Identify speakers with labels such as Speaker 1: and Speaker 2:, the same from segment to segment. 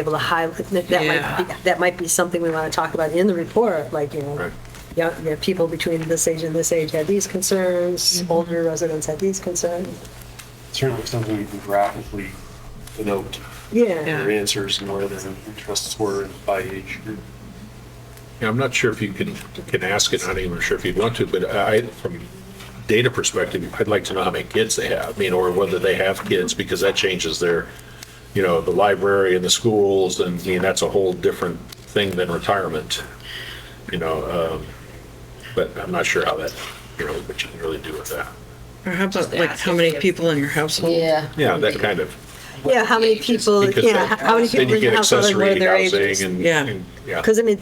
Speaker 1: able to highlight, that that
Speaker 2: Yeah.
Speaker 1: might, be- that might be something we want to talk about in the report, like, you know,
Speaker 3: Right.
Speaker 1: young, you know, people between this age and this age had these concerns,
Speaker 4: Mm-hmm.
Speaker 1: older residents had these concerns.
Speaker 5: Certainly something you can graphically denote
Speaker 1: Yeah,
Speaker 2: Yeah.
Speaker 5: their answers and where their interests were by age group.
Speaker 3: Yeah, I'm not sure if you can, can ask it, I'm not even sure if you'd want to, but I, from data perspective, I'd like to know how many kids they have, I mean, or whether they have kids, because that changes their, you know, the library and the schools, and, I mean, that's a whole different thing than retirement, you know, um, but I'm not sure how that, you know, what you can really do with that.
Speaker 2: Or how about like how many people in your household?
Speaker 6: Yeah.
Speaker 3: Yeah, that kind of,
Speaker 1: yeah, how many people,
Speaker 3: because
Speaker 1: yeah, how many
Speaker 3: then
Speaker 1: people
Speaker 3: you
Speaker 1: in your
Speaker 3: get
Speaker 1: household and what are
Speaker 3: accessory
Speaker 1: their ages?
Speaker 3: housing and,
Speaker 2: Yeah.
Speaker 3: and- yeah.
Speaker 1: Because I mean,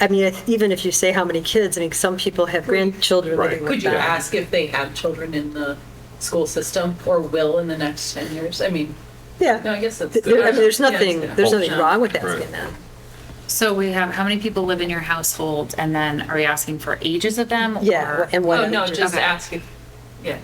Speaker 1: I mean, even if you say how many kids, I mean, some people have grandchildren
Speaker 3: Right.
Speaker 1: living
Speaker 4: Could
Speaker 1: with
Speaker 4: you
Speaker 1: them.
Speaker 4: ask if they have children in the school system or will in the next 10 years? I mean, no,
Speaker 1: Yeah,
Speaker 4: I guess that's.
Speaker 1: Th- there- I mean, there's
Speaker 4: Yeah,
Speaker 1: nothing,
Speaker 4: yeah.
Speaker 1: there's nothing
Speaker 4: Yeah.
Speaker 1: wrong with asking
Speaker 3: Right.
Speaker 1: that.
Speaker 7: So we have, how many people live in your household, and then are you asking for ages of them?
Speaker 1: Yeah,
Speaker 7: or-
Speaker 1: and what.
Speaker 4: Oh, no, just
Speaker 7: Okay.
Speaker 4: ask if, yeah.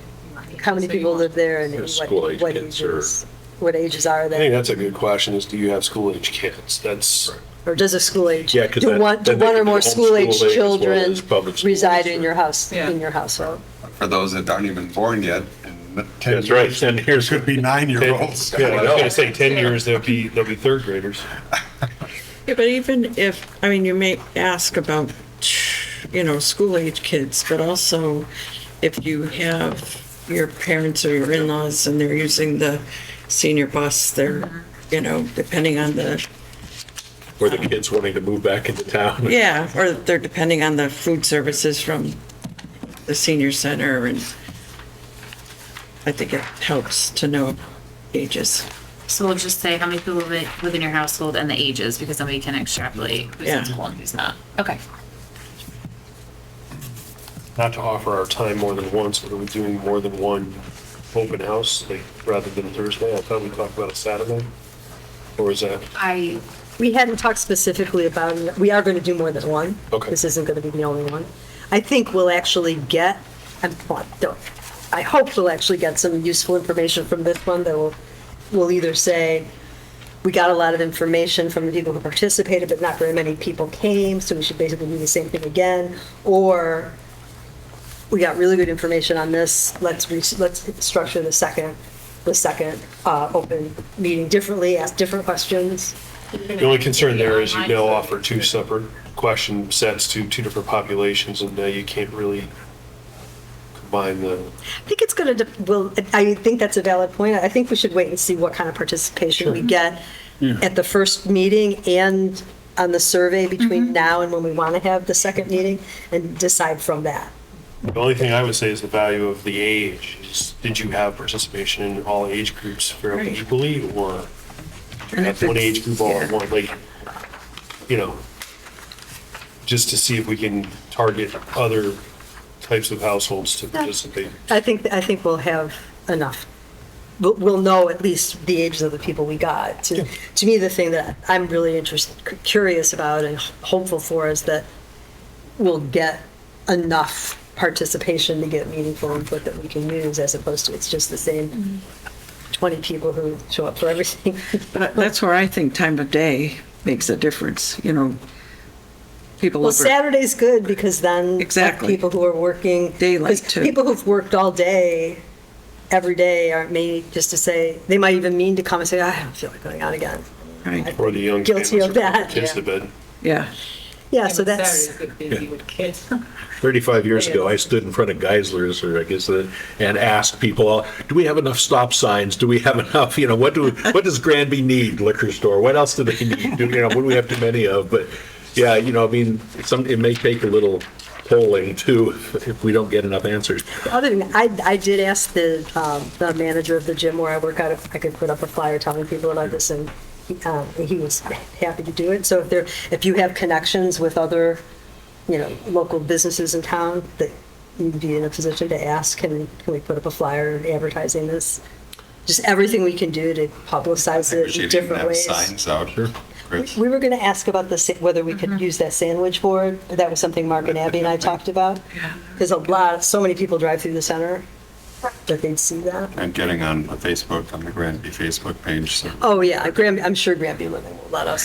Speaker 1: How many
Speaker 4: So you
Speaker 1: people
Speaker 4: want-
Speaker 1: live there and
Speaker 3: Yeah,
Speaker 1: what,
Speaker 3: school-age
Speaker 1: what
Speaker 3: kids or-
Speaker 1: ages? What ages are
Speaker 5: I think
Speaker 1: they?
Speaker 5: that's a good question is do you have school age kids? That's,
Speaker 1: Or does a school age?
Speaker 3: Yeah, 'cause
Speaker 1: Do
Speaker 3: that-
Speaker 1: one, do
Speaker 3: then they
Speaker 1: one or
Speaker 3: can do
Speaker 1: more
Speaker 3: homeschool
Speaker 1: school age
Speaker 3: age as well
Speaker 1: children
Speaker 3: as public schools
Speaker 1: reside in
Speaker 3: or-
Speaker 1: your house,
Speaker 4: Yeah.
Speaker 1: in your household?
Speaker 8: for those that aren't even born yet. in the 10
Speaker 3: That's right,
Speaker 8: years,
Speaker 3: ten years.
Speaker 8: Could be nine-year-olds.
Speaker 5: yeah, I was gonna say ten years, they'll be, they'll be third graders.
Speaker 2: Yeah, but even if, I mean, you may ask about, you know, school age kids, but also if you have your parents or your in-laws and they're using the senior bus, they're, you know, depending on the,
Speaker 3: Or the kids wanting to move back into town.
Speaker 2: yeah, or they're depending on the food services from the senior center and I think it helps to know ages.
Speaker 7: So we'll just say how many people live live in your household and the ages, because then we can extrapolate who's
Speaker 2: Yeah.
Speaker 7: in school and who's not. Okay.
Speaker 5: Not to offer our time more than once, but are we doing more than one open house, like rather than Thursday? I thought we talked about a Saturday. Or is that?
Speaker 7: I,
Speaker 1: We hadn't talked specifically about, it. we are going to do more than one.
Speaker 5: Okay.
Speaker 1: This isn't going to be the only one. I think we'll actually get, I'm, well, don't- I hope we'll actually get some useful information from this one that will, will either say, we got a lot of information from the people who participated, but not very many people came, so we should basically do the same thing again, or we got really good information on this, let's, re- let's structure the second, the second uh, open meeting differently, ask different questions.
Speaker 5: The only concern there is you now offer two separate question sets to two different populations, and now you can't really combine the,
Speaker 1: I think it's going to, well, I think that's a valid point. I think we should wait and see what kind of participation we get at the first meeting and on the survey between now and when we want to have the second meeting and decide from that.
Speaker 5: the only thing I would say is the value of the age. is Did you have participation in all age groups fairly
Speaker 2: Right.
Speaker 5: equally, or did you
Speaker 2: And
Speaker 5: have
Speaker 2: if
Speaker 5: one
Speaker 2: it's-
Speaker 5: age group all at
Speaker 2: yeah.
Speaker 5: one, like, you know, just to see if we can target other types of households to participate.
Speaker 1: I think, I think we'll have enough. We'll, we'll know at least the ages of the people we got. To, to me, the thing that I'm really interested, curious about and hopeful for is that we'll get enough participation to get meaningful input that we can use as opposed to it's just the same 20 people who show up for everything.
Speaker 2: But that's where I think time of day makes a difference, you know. People
Speaker 1: Well,
Speaker 2: over,
Speaker 1: Saturday's good because then
Speaker 2: Exactly.
Speaker 1: people who are working.
Speaker 2: Daylight,
Speaker 1: 'cause
Speaker 2: too.
Speaker 1: People who've worked all day, every day, are may, just to say, they might even mean to come and say, I don't feel like going out again.
Speaker 2: right,
Speaker 5: Or the young
Speaker 1: Guilty
Speaker 5: families
Speaker 1: of
Speaker 5: who put
Speaker 1: that,
Speaker 5: kids to bed.
Speaker 2: yeah.
Speaker 1: Yeah, Uh, so
Speaker 4: Even
Speaker 1: that's,
Speaker 4: Saturday's good busy with kids.
Speaker 3: 35 years ago, I stood in front of Geisler's, or I guess, the- and asked people, uh, do we have enough stop signs? Do we have enough, you know, what do, what does Granby need liquor store? What else do they need? Do, you know, what do we have too many of? But, yeah, you know, I mean, some, it may take a little polling too, if we don't get enough answers.
Speaker 1: other than, I, I did ask the, um, the manager of the gym where I work out if I could put up a flyer telling people about this, and he, um, he was happy to do it. So if there, if you have connections with other, you know, local businesses in town, that you'd be in a position to ask, can, can we put up a flyer advertising this? Just everything we can do to publicize
Speaker 8: We
Speaker 1: it in
Speaker 8: should even
Speaker 1: different
Speaker 8: have
Speaker 1: ways.
Speaker 8: signs out. Chris.
Speaker 1: We were going to ask about the, sa- whether we could use that sandwich board. That was something Mark and Abby and I talked about. Because a lot, so many people drive through the center. that they'd see that.
Speaker 8: I'm getting on the Facebook, on the Granby Facebook page, so.
Speaker 1: Oh, yeah, Granby, I'm sure Granby Living will let us